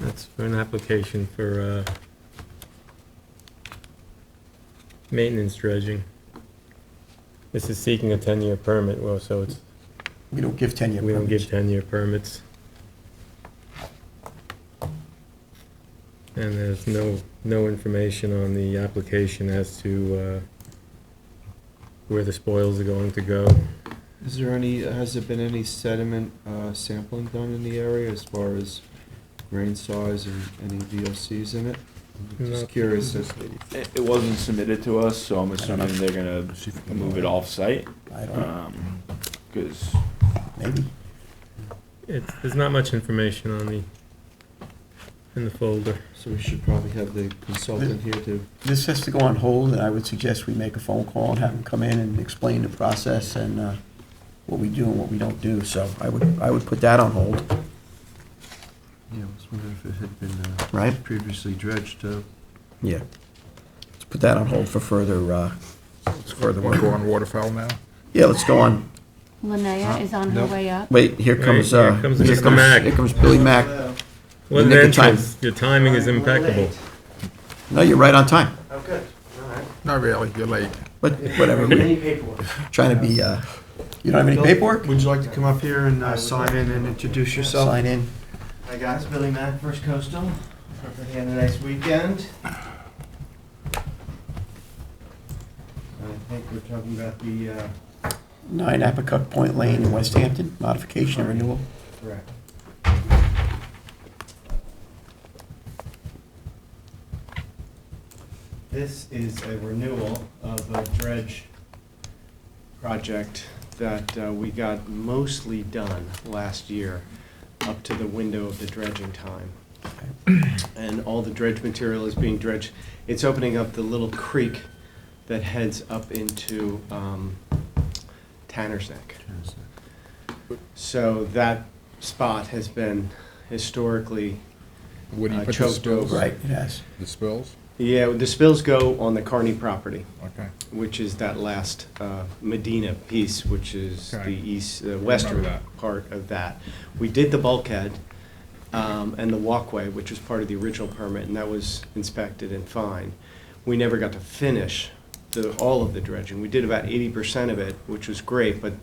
That's for an application for, uh, maintenance dredging. This is seeking a ten-year permit, well, so it's, We don't give 10-year we don't give permits. ten-year permits. And there's no, no information on the application as to, uh, where the spoils are going to go. Is there any, has there been any sediment uh, sampling done in the area as far as grain size and any VOCs in it? I'm No. Just curious if, It, it wasn't submitted to us, so I'm assuming they're gonna move it off-site, I Uh. don't know, um, cause maybe. It's, there's not much information on the, in the folder. so we should probably have the consultant here to, This has to go on hold, and I would suggest we make a phone call and have them come in and explain the process and uh, what we do and what we don't do. So I would, I would put that on hold, yeah, I was wondering if it had been uh, right? previously dredged. uh, Yeah. Let's put that on hold for further, uh, further Want to go work. on waterfowl now? Yeah, let's go on. Linnea is on her Nope. way up. Wait, here Right, comes, here uh, comes here Mr. comes, Mack. here comes Billy Mack. What an Nick, your time. entrance. Your timing is impeccable. No, you're right on time, Oh, Not really, you're late. but whatever. Any paperwork? Trying to be, uh, you don't have any paperwork? Would you like to come up here and uh, sign in and introduce yourself? Sign in. Hi guys, Billy Mack, First Coastal. Hope you had a nice weekend. I think we're talking about the, uh, Nine Apicook Point Lane in West Hampton, modification and renewal. correct. This is a renewal of a dredge project that uh, we got mostly done last year, up to the window of the dredging time. and all the dredge material is being dredged. It's opening up the little creek that heads up into um, Tanner's Neck. So that spot has been historically, Where do you Uh, put the choked spills? over. Right, yes. The spills? yeah, the spills go on the Carney property, Okay. which is that last uh, Medina piece, which is the Okay. east, the western that. part of that. We did the bulkhead um, and the walkway, which was part of the original permit, and that was inspected and fine. We never got to finish the, all of the dredging. We did about eighty percent of it, which was great, but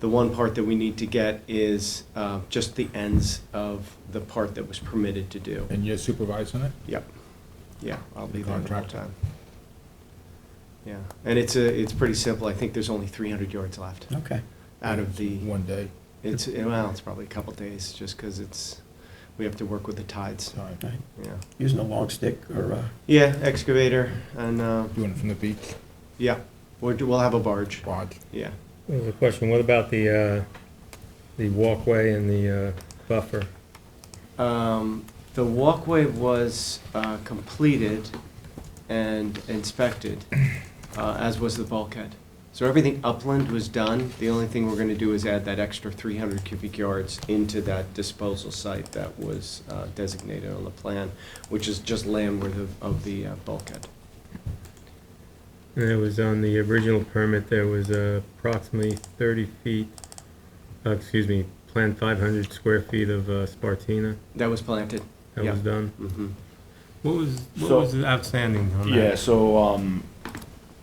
the one part that we need to get is uh, just the ends of the part that was permitted to do. And you're supervising it? Yep. Yeah, I'll be there the whole Contractor. time. Yeah, and it's a, it's pretty simple. I think there's only three hundred yards left Okay. out of the. One day, It's, well, it's probably a couple days, just because it's, we have to work with the tides, time. Right. yeah. Using a long stick or, uh, Yeah, excavator, and, uh, Doing it from the beach, yeah, we'll, do- we'll have a barge, barge. yeah. There's a question, what about the, uh, the walkway and the, uh, buffer? Um, The walkway was uh, completed and inspected, uh, as was the bulkhead. So everything upland was done. The only thing we're going to do is add that extra 300 cubic yards into that disposal site that was uh, designated on the plan, which is just landward of- of the uh, bulkhead. And it was on the original permit, there was uh, approximately thirty feet, uh, excuse me, planned five hundred square feet of, uh, Spartina That was planted. that was Yeah. done. Mm-hmm. What was, what what So- was was outstanding on that? Yeah, so, um,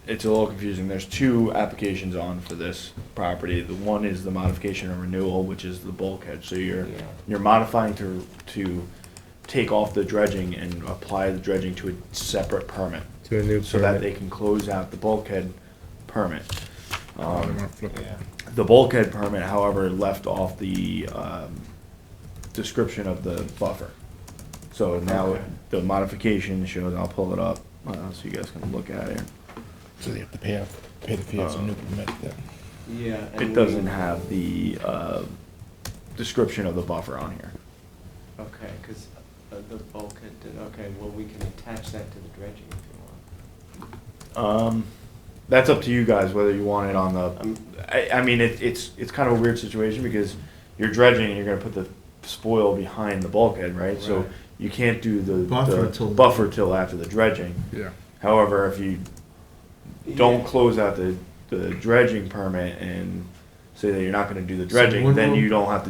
it's a little confusing. There's two applications on for this property. The one is the modification and renewal, which is the bulkhead, so you're, you're modifying to, to take off the dredging and apply the dredging to a separate permit, To a new so that they permit. can close out the bulkhead permit. Oh, they Um, wanna flip it. The bulkhead permit, however, left off the um, description of the buffer. So now the modification shows, I'll pull it up, uh, so you guys can look at it. So they have to pay, off- pay the fee, it's a new permit then. Yeah. and It we- doesn't have the uh, description of the buffer on here. Okay, because the bulkhead did, okay, well, we can attach that to the dredging if you want. Um, That's up to you guys, whether you want it on the, I, I mean, it- it's, it's kind of a weird situation because you're dredging and you're gonna put the spoil behind the bulkhead, right? So Right. you can't do the. Buffer the till- Buffer till after the dredging. Yeah. However, if you don't Yeah. close out the, the dredging permit and say that you're not gonna do the So dredging, when then will- you don't have to